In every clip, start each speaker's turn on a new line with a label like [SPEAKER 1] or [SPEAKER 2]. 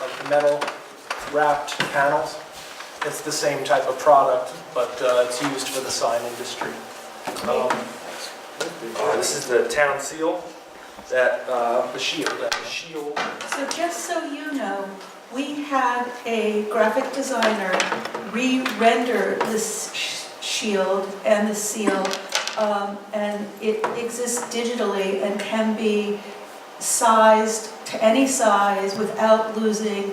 [SPEAKER 1] like the metal wrapped panels. It's the same type of product, but uh, it's used for the sign industry. Um,
[SPEAKER 2] Uh, This is the town seal that, uh,
[SPEAKER 1] The shield, that is.
[SPEAKER 2] shield.
[SPEAKER 3] So just so you know, we had a graphic designer re-render this sh- shield and the seal, um, and it exists digitally and can be sized to any size without losing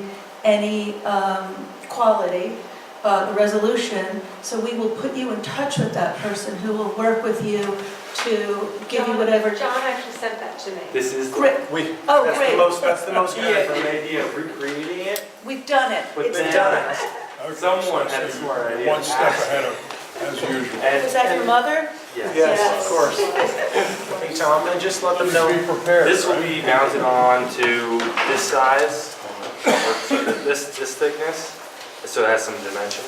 [SPEAKER 3] any um, quality, uh, the resolution. So we will put you in touch with that person who will work with you to give you
[SPEAKER 4] John-
[SPEAKER 3] whatever.
[SPEAKER 4] John actually sent that to me.
[SPEAKER 2] This is. the-
[SPEAKER 3] Great,
[SPEAKER 1] We, that's
[SPEAKER 3] oh,
[SPEAKER 1] the
[SPEAKER 3] great,
[SPEAKER 1] most, that's the most.
[SPEAKER 2] Yeah, the idea of recreating it,
[SPEAKER 3] we've done it.
[SPEAKER 2] but
[SPEAKER 3] It's
[SPEAKER 2] then.
[SPEAKER 3] done.
[SPEAKER 5] Okay,
[SPEAKER 2] Someone
[SPEAKER 5] so
[SPEAKER 2] had a smart
[SPEAKER 5] you're
[SPEAKER 2] idea.
[SPEAKER 5] One step ahead of, as usual.
[SPEAKER 2] And-
[SPEAKER 3] Was that your mother?
[SPEAKER 2] Yes.
[SPEAKER 1] Yes, of course. Hey, Tom, and just let them know.
[SPEAKER 5] Be prepared.
[SPEAKER 2] This will be
[SPEAKER 5] right?
[SPEAKER 2] mounted on to this size, or this, this thickness, so it has some dimensions.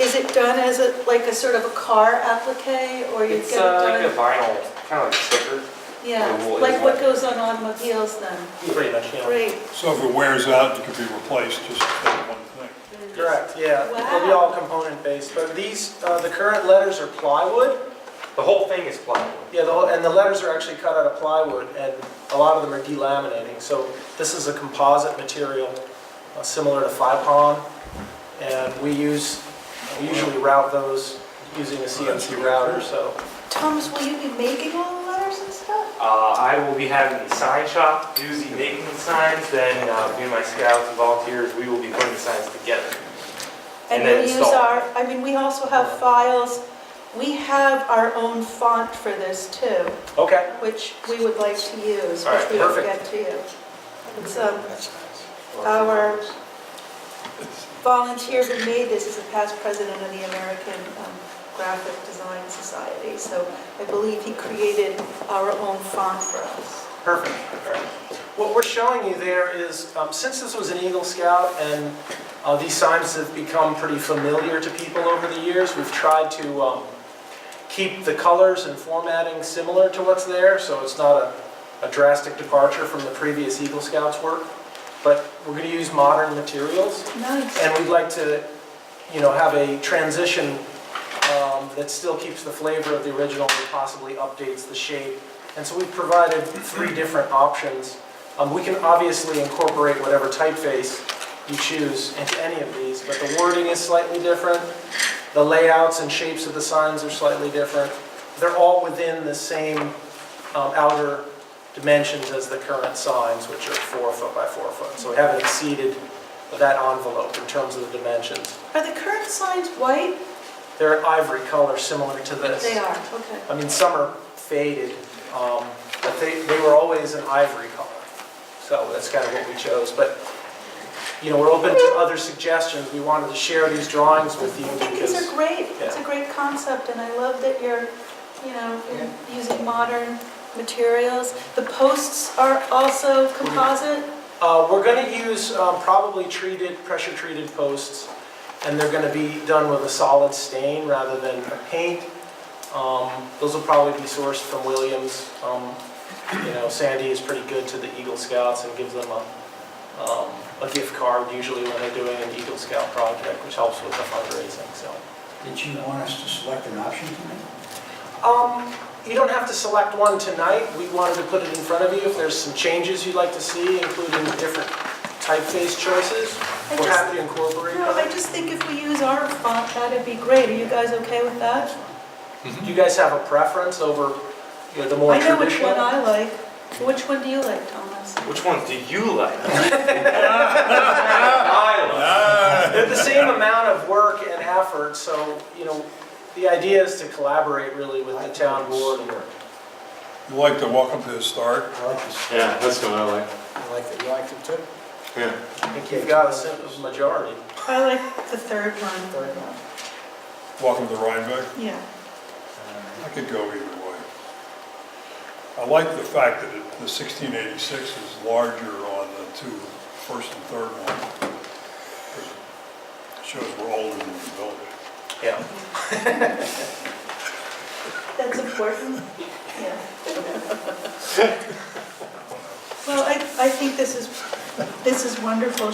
[SPEAKER 3] Is it done as a, like a sort of a car applique, or you get
[SPEAKER 2] It's
[SPEAKER 3] it
[SPEAKER 2] uh, like a
[SPEAKER 3] done?
[SPEAKER 2] vinyl, kind of like sticker.
[SPEAKER 3] Yeah,
[SPEAKER 2] a wool
[SPEAKER 3] like what
[SPEAKER 2] inlay.
[SPEAKER 3] goes on automobiles then?
[SPEAKER 1] Pretty much, yeah.
[SPEAKER 3] Great,
[SPEAKER 5] So if it wears out, it could be replaced, just take one thing.
[SPEAKER 1] Correct, yeah. They'll be
[SPEAKER 3] Wow.
[SPEAKER 1] all component-based, but these, uh, the current letters are plywood.
[SPEAKER 2] The whole thing is plywood.
[SPEAKER 1] Yeah, the whole, and the letters are actually cut out of plywood, and a lot of them are delaminating. So this is a composite material, uh, similar to FIPON, and we use, we usually route those using a CNC router, so.
[SPEAKER 3] Thomas, will you be making all the letters and stuff?
[SPEAKER 2] Uh, I will be having the sign shop do the making of signs, then uh, me and my scouts and volunteers, we will be putting the signs together. And
[SPEAKER 3] we'll
[SPEAKER 2] then
[SPEAKER 3] use
[SPEAKER 2] install.
[SPEAKER 3] our. I mean, we also have files, we have our own font for this too,
[SPEAKER 1] Okay.
[SPEAKER 3] which we would like to use,
[SPEAKER 2] All
[SPEAKER 3] which
[SPEAKER 2] right,
[SPEAKER 3] we will get
[SPEAKER 2] perfect.
[SPEAKER 3] to you. It's um, Our- volunteer who made this is a past president of the American um, Graphic Design Society, so I believe he created our own font for us.
[SPEAKER 1] Perfect. What we're showing you there is, um, since this was an Eagle Scout and uh, these signs have become pretty familiar to people over the years, we've tried to um, keep the colors and formatting similar to what's there, so it's not a- a drastic departure from the previous Eagle Scouts work. But we're going to use modern materials,
[SPEAKER 3] Nice.
[SPEAKER 1] and we'd like to, you know, have a transition um, that still keeps the flavor of the original, but possibly updates the shape. And so we've provided three different options. Um, We can obviously incorporate whatever typeface you choose into any of these, but the wording is slightly different, the layouts and shapes of the signs are slightly different. They're all within the same um, outer dimensions as the current signs, which are four foot by four foot. So we haven't exceeded that envelope in terms of the dimensions.
[SPEAKER 3] Are the current signs white?
[SPEAKER 1] They're an ivory color similar to this.
[SPEAKER 3] They are, okay.
[SPEAKER 1] I mean, some are faded, um, but they, they were always an ivory color. So that's kind of what we chose, but, you know, we're open to other suggestions. We wanted to share these drawings with you
[SPEAKER 3] I think these are
[SPEAKER 1] because,
[SPEAKER 3] great. It's a great concept, and I love that you're, you know, you're using modern materials. The posts are also composite.
[SPEAKER 1] uh, we're gonna use, um, probably treated, pressure-treated posts, and they're gonna be done with a solid stain rather than a paint. Um, those will probably be sourced from Williams. Um, you know, Sandy is pretty good to the Eagle Scouts and gives them a, um, a gift card usually when they're doing an Eagle Scout project, which helps with the fundraising, so.
[SPEAKER 6] Did you want us to select an option tonight?
[SPEAKER 1] Um, you don't have to select one tonight. We wanted to put it in front of you if there's some changes you'd like to see, including different typeface choices.
[SPEAKER 3] I
[SPEAKER 1] We're
[SPEAKER 3] just-
[SPEAKER 1] happy to incorporate
[SPEAKER 3] No, I
[SPEAKER 1] that.
[SPEAKER 3] just think if we use our font, that'd be great. Are you guys okay with that?
[SPEAKER 1] Do you guys have a preference over, you know, the more
[SPEAKER 3] I know which
[SPEAKER 1] traditional?
[SPEAKER 3] one I like. Which one do you like, Thomas?
[SPEAKER 2] Which ones do you like? I like.
[SPEAKER 5] Ah,
[SPEAKER 1] They're the same amount of work and effort, so, you know, the idea is to collaborate really with the town board.
[SPEAKER 5] You like the welcome to the start?
[SPEAKER 6] I like this,
[SPEAKER 7] Yeah, that's what I like.
[SPEAKER 6] I like that you liked it too.
[SPEAKER 7] Yeah.
[SPEAKER 1] I think you've got a simple majority.
[SPEAKER 3] I like the third one.
[SPEAKER 6] Third one.
[SPEAKER 5] Welcome to Rhinebeck?
[SPEAKER 3] Yeah.
[SPEAKER 5] I could go either way. I like the fact that it- the 1686 is larger on the two, first and third one. 'cause it Shows we're older than the village.
[SPEAKER 1] Yeah.
[SPEAKER 3] That's important. Yeah. Well, I, I think this is This is wonderful,